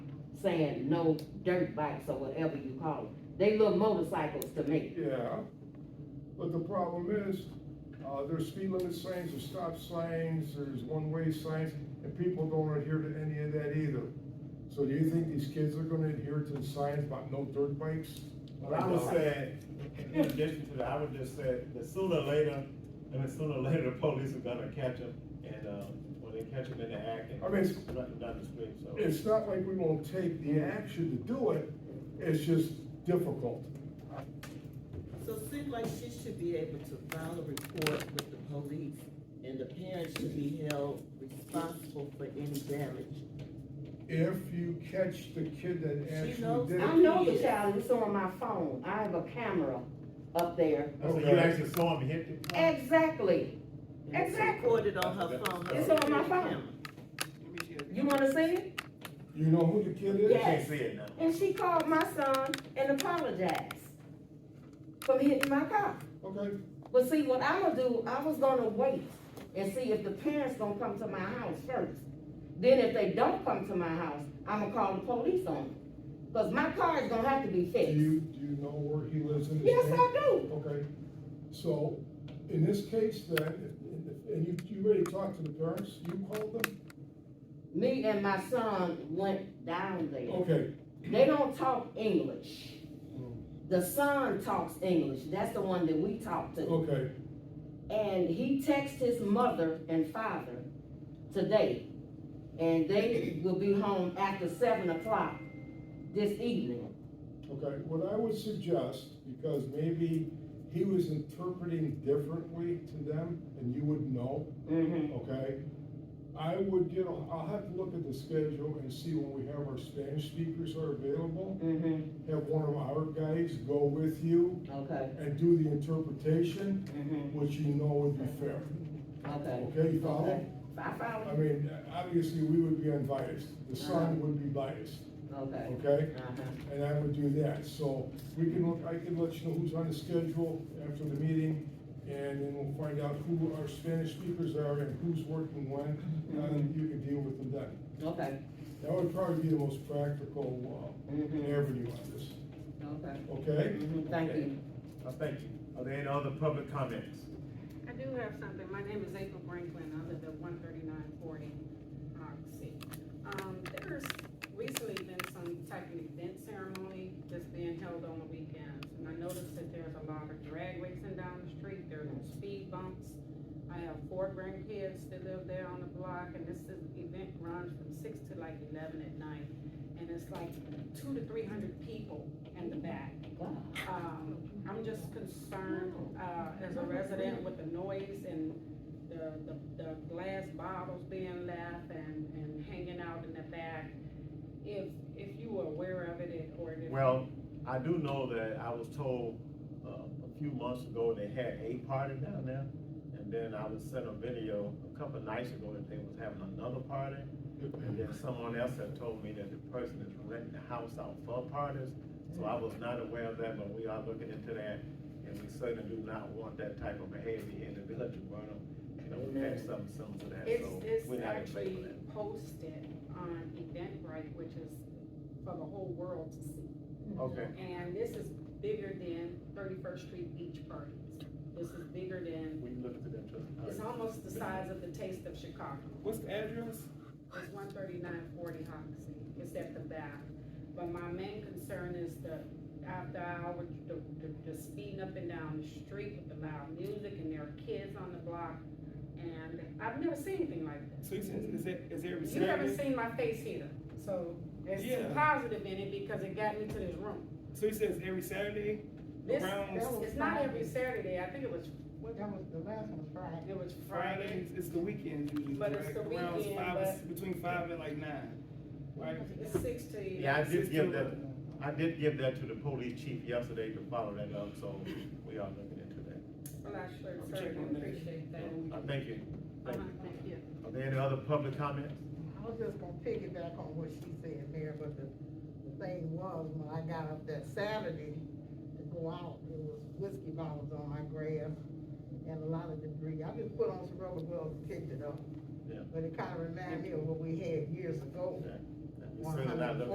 saying no dirt bikes or whatever you call them. They look motorcycles to me. Yeah, but the problem is, uh, there's speed limit signs, there's stop signs, there's one-way signs, and people don't adhere to any of that either. So do you think these kids are gonna adhere to the signs about no dirt bikes? Well, I would say, in addition to that, I would just say, that sooner or later, I mean, sooner or later, the police are gonna catch them, and, uh, when they catch them in the act, and I mean, it's- nothing down the street, so. It's not like we won't take the action to do it, it's just difficult. So it seems like she should be able to file a report with the police, and the parents should be held responsible for any damage. If you catch the kid that She actually knows did I it, know the child, it's on my phone, I have a camera up there. So you actually saw him hit the car? Exactly, And it's Exactly. Recorded on her phone. It's on my phone. security camera. you wanna see it? you know who the kid is? You Yes. can't see it now. And she called my son and apologized for hitting my car. Okay, But see, what I'm gonna do, I was gonna wait and see if the parents gonna come to my house first. Then if they don't come to my house, I'm gonna call the police on them. Cause my car is gonna have to be do you, fixed. do you know where he lives in his Yes, neighborhood? I do. Okay, so in this case then, and you, you already talked to the parents, you called them? Me and my son went down there. Okay, They don't talk English. The son talks English. That's the one that we talked to. okay, And he texts his mother and father today. And they will be home after seven o'clock this evening. okay. What I would suggest, because maybe he was interpreting differently to them and you wouldn't know, hmm okay? I would get, a- I'll have to look at the schedule and see when we have our Spanish speakers are available. hmm Have one of our guys go with you okay, and do the interpretation, hmm which you know would be fair. okay. Okay, you follow? Okay. I I follow, mean, obviously, we would be unbiased, the son would be biased, okay. okay? Uh-huh. And I would do that, so we can, look. I can let you know who's on the schedule after the meeting, and then we'll find out who our Spanish speakers are and who's working when, and you can deal with them then. Okay, That would probably be the most practical, uh, Mhm. avenue on this, okay. okay? Mhm. Thank you. I thank you. Are there any other public comments? I do have something. My name is April Franklin. I live at one thirty-nine forty Oxy. Um, there's recently been some type of event ceremony that's being held on the weekends. And I noticed that there's a lot of drag racing down the street. There's speed bumps. I have four grandkids that live there on the block and this is- event runs from six to like eleven at night. And it's like two to three hundred people in the back. Wow. Um, I'm just concerned, uh, as a resident with the noise and the, the, the glass bottles being left and, and hanging out in the back. If, if you were aware of it or if. Well, I do know that I was told, uh, a few months ago, they had a party down there, and then I was sent a video a couple nights ago that they was having another party, and then someone else had told me that the person is renting the house out for parties, so I was not aware of that, but we are looking into that, and we certainly do not want that type of behavior here in the village of Burnham. You know, we had something similar to that, It's, so it's we're not in favor actually of that. posted on Eventbrite, which is for the whole world to see. Okay, And this is bigger than Thirty-first Street Beach Parties. This is bigger than, we look into them too. All it's right. almost the size of the Taste of Chicago. What's the address? It's one thirty-nine forty Hoxie, it's at the back. But my main concern is the after hour, the, the, the speeding up and down the street with the loud music and there are kids on the block. And I've never seen anything like this. So you said, is it, is it You haven't received? seen my face either, so it's Yeah. positive in it because it got me to this room. So you said it's every Saturday? This, Around- this- it's not every Saturday, I think it was, what, That was, the last one was Friday. it was Friday. Fridays, it's the weekends usually, But right? it's the Around weekend, five, between five and like nine, right? It's six to. Yeah, I did give that, Sixteen. I did give that to the police chief yesterday to follow that up, so we are looking into that. Well, I sure, I'm sure checking that. appreciate that. I thank you. Uh-huh, Thank you. thank you. Are there any other public comments? I was just gonna piggyback on what she said, Mayor, but the, the thing was, when I got up that Saturday to go out, it was whiskey bottles on my grass and a lot of debris. I just put on some rubber gloves and picked it up. Yeah. But it kinda reminded me of what we had years ago. We certainly not looking